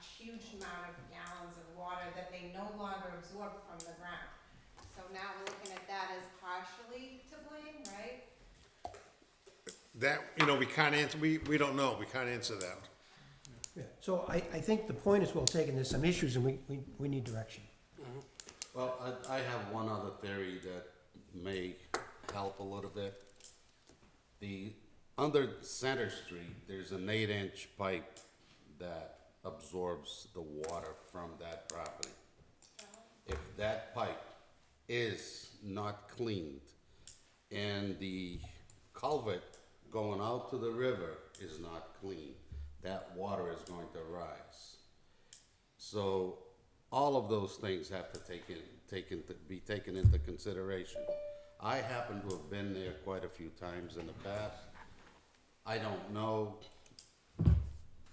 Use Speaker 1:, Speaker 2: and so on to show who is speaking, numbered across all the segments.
Speaker 1: huge amount of gallons of water that they no longer absorb from the ground. So now we're looking at that as partially to blame, right?
Speaker 2: That, you know, we can't answer, we, we don't know, we can't answer that.
Speaker 3: Yeah, So I, I think the point is well taken, there's some issues and we, we, we need direction.
Speaker 4: Well, I, I have one other theory that may help a little bit. The, under Center Street, there's an eight-inch pipe that absorbs the water from that property. If that pipe is not cleaned and the culvert going out to the river is not clean, that water is going to rise. So all of those things have to take in, take into, be taken into consideration. I happen to have been there quite a few times in the past. I don't know,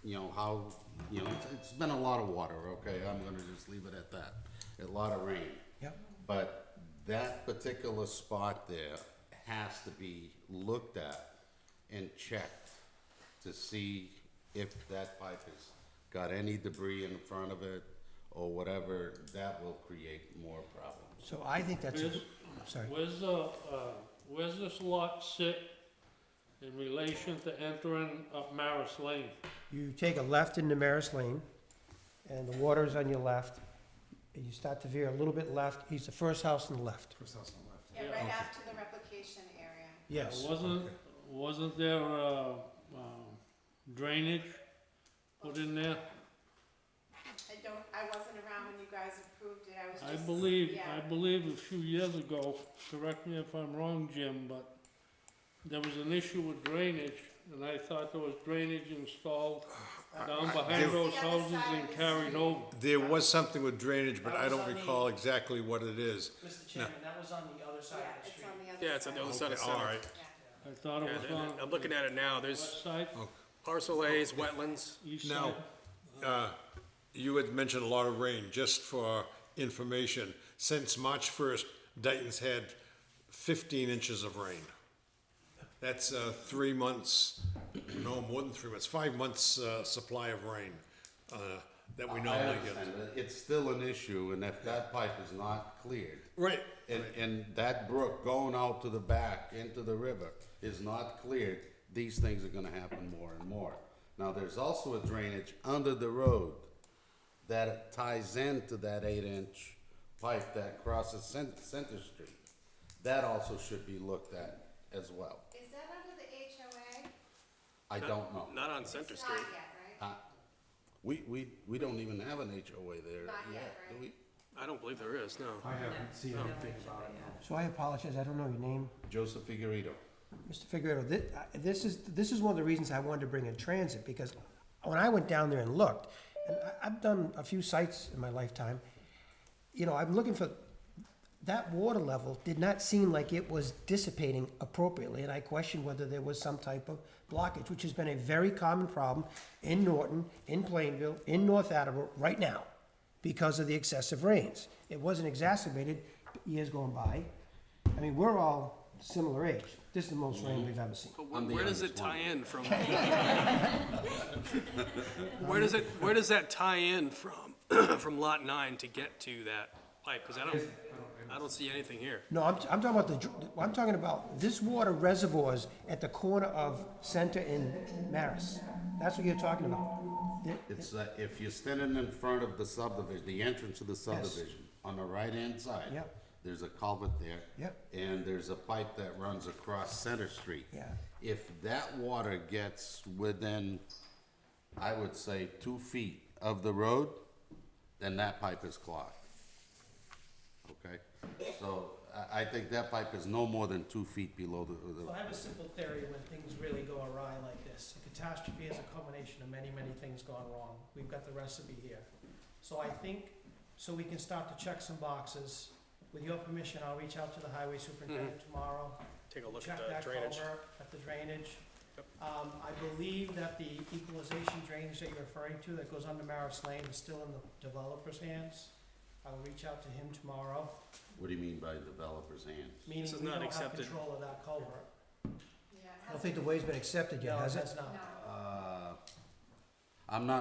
Speaker 4: you know, how, you know, it's- it's been a lot of water, okay, I'm gonna just leave it at that. A lot of rain.
Speaker 3: Yep.
Speaker 4: But that particular spot there has to be looked at and checked to see if that pipe has got any debris in front of it or whatever, that will create more problems.
Speaker 3: So I think that's, a-
Speaker 5: Where's,
Speaker 3: I'm sorry,
Speaker 5: where's the, uh, where's this lot sit in relation to entering up Maris Lane?
Speaker 3: you take a left into Maris Lane and the water is on your left. And you start to veer a little bit left, he's the first house on the left.
Speaker 1: Yeah, right after the replication area.
Speaker 3: Yes.
Speaker 5: Wasn't, wasn't there, uh, um, drainage put in there?
Speaker 1: I don't, I wasn't around when you guys approved it, I was
Speaker 5: I
Speaker 1: just.
Speaker 5: believe, I
Speaker 1: yeah.
Speaker 5: believe a few years ago, correct me if I'm wrong, Jim, but there was an issue with drainage, and I thought there was drainage installed down behind
Speaker 2: there-
Speaker 5: those
Speaker 1: It's the other
Speaker 5: houses
Speaker 1: side of
Speaker 5: and
Speaker 1: the
Speaker 5: carried
Speaker 1: street.
Speaker 5: over.
Speaker 2: There was something with drainage, but
Speaker 6: That
Speaker 2: I
Speaker 6: was
Speaker 2: don't
Speaker 6: on the-
Speaker 2: recall exactly what it is.
Speaker 6: Mr. Chairman, that was on the other side
Speaker 1: Yeah,
Speaker 6: of the
Speaker 1: it's
Speaker 6: street.
Speaker 1: on the other side.
Speaker 7: Yeah, it's on the other side of
Speaker 2: Okay, all
Speaker 7: center.
Speaker 2: right.
Speaker 1: Yeah.
Speaker 5: I thought it
Speaker 7: Yeah,
Speaker 5: was
Speaker 7: and-
Speaker 5: on
Speaker 7: and I'm looking at it now,
Speaker 5: west
Speaker 7: there's
Speaker 5: side,
Speaker 7: parcel A's, wetlands.
Speaker 5: east side.
Speaker 2: Now, uh, you had mentioned a lot of rain, just for information. Since March 1st, Dayton's had 15 inches of rain. That's uh, three months, no, more than three months, five months' uh, supply of rain uh, that we
Speaker 4: I
Speaker 2: normally get.
Speaker 4: understand, but it's still an issue, and if that pipe is not cleared,
Speaker 2: Right,
Speaker 4: and, and that brook going out to the back into the river is not cleared, these things are gonna happen more and more. Now, there's also a drainage under the road that ties into that eight-inch pipe that crosses Cen- Center Street. That also should be looked at as well.
Speaker 1: Is that under the HOA?
Speaker 4: I don't know.
Speaker 7: Not on Center
Speaker 1: It's
Speaker 7: Street.
Speaker 1: Not yet, right?
Speaker 4: Uh, We, we, we don't even have an HOA there
Speaker 1: Not yet,
Speaker 4: yet, do
Speaker 1: right?
Speaker 4: we?
Speaker 7: I don't believe there is, no.
Speaker 8: I haven't seen anything about it, no.
Speaker 3: So I apologize, I don't know your name.
Speaker 4: Joseph Figurito.
Speaker 3: Mr. Figueroa, this, this is, this is one of the reasons I wanted to bring in transit, because when I went down there and looked, and I, I've done a few sites in my lifetime, you know, I'm looking for, that water level did not seem like it was dissipating appropriately, and I questioned whether there was some type of blockage, which has been a very common problem in Norton, in Plainville, in North Attleboro, right now, because of the excessive rains. It wasn't exacerbated years going by. I mean, we're all similar age. This is the most rain we've ever seen.
Speaker 7: But
Speaker 4: I'm the
Speaker 7: wh- where does it
Speaker 4: youngest
Speaker 7: tie
Speaker 4: one.
Speaker 7: in from? Where does it, where does that tie in from, from lot nine to get to that pipe? Because I don't, I don't see anything here.
Speaker 3: No, I'm, I'm talking about the, dr- I'm talking about this water reservoirs at the corner of Center and Maris. That's what you're talking about. The-
Speaker 4: It's, uh, if you're standing in front of the subdivision, the entrance to the subdivision, on the right-hand side.
Speaker 3: Yep.
Speaker 4: There's a culvert there.
Speaker 3: Yep.
Speaker 4: And there's a pipe that runs across Center Street.
Speaker 3: Yeah.
Speaker 4: If that water gets within, I would say, two feet of the road, then that pipe is clogged. Okay? So I, I think that pipe is no more than two feet below the, the
Speaker 8: Well, I have a simple theory when things really go awry like this. A catastrophe is a combination of many, many things gone wrong. We've got the recipe here. So I think, so we can start to check some boxes. With your permission, I'll reach out to the highway superintendent
Speaker 3: Mm-hmm.
Speaker 8: tomorrow.
Speaker 7: Take a look
Speaker 8: Check
Speaker 7: at the
Speaker 8: that
Speaker 7: drainage.
Speaker 8: culvert, at the drainage. Um, I believe that the equalization drainage that you're referring to that goes under Maris Lane is still in the developer's hands. I will reach out to him tomorrow,
Speaker 4: What do you mean by developer's hands?
Speaker 8: meaning
Speaker 7: This is
Speaker 8: we
Speaker 7: not
Speaker 8: don't have
Speaker 7: accepted.
Speaker 8: control of that culvert.
Speaker 1: Yeah. it
Speaker 3: I
Speaker 1: has
Speaker 8: Uh,
Speaker 3: don't think the way's been accepted yet, has it?
Speaker 8: No, it has not.
Speaker 1: No.
Speaker 4: Uh, I'm not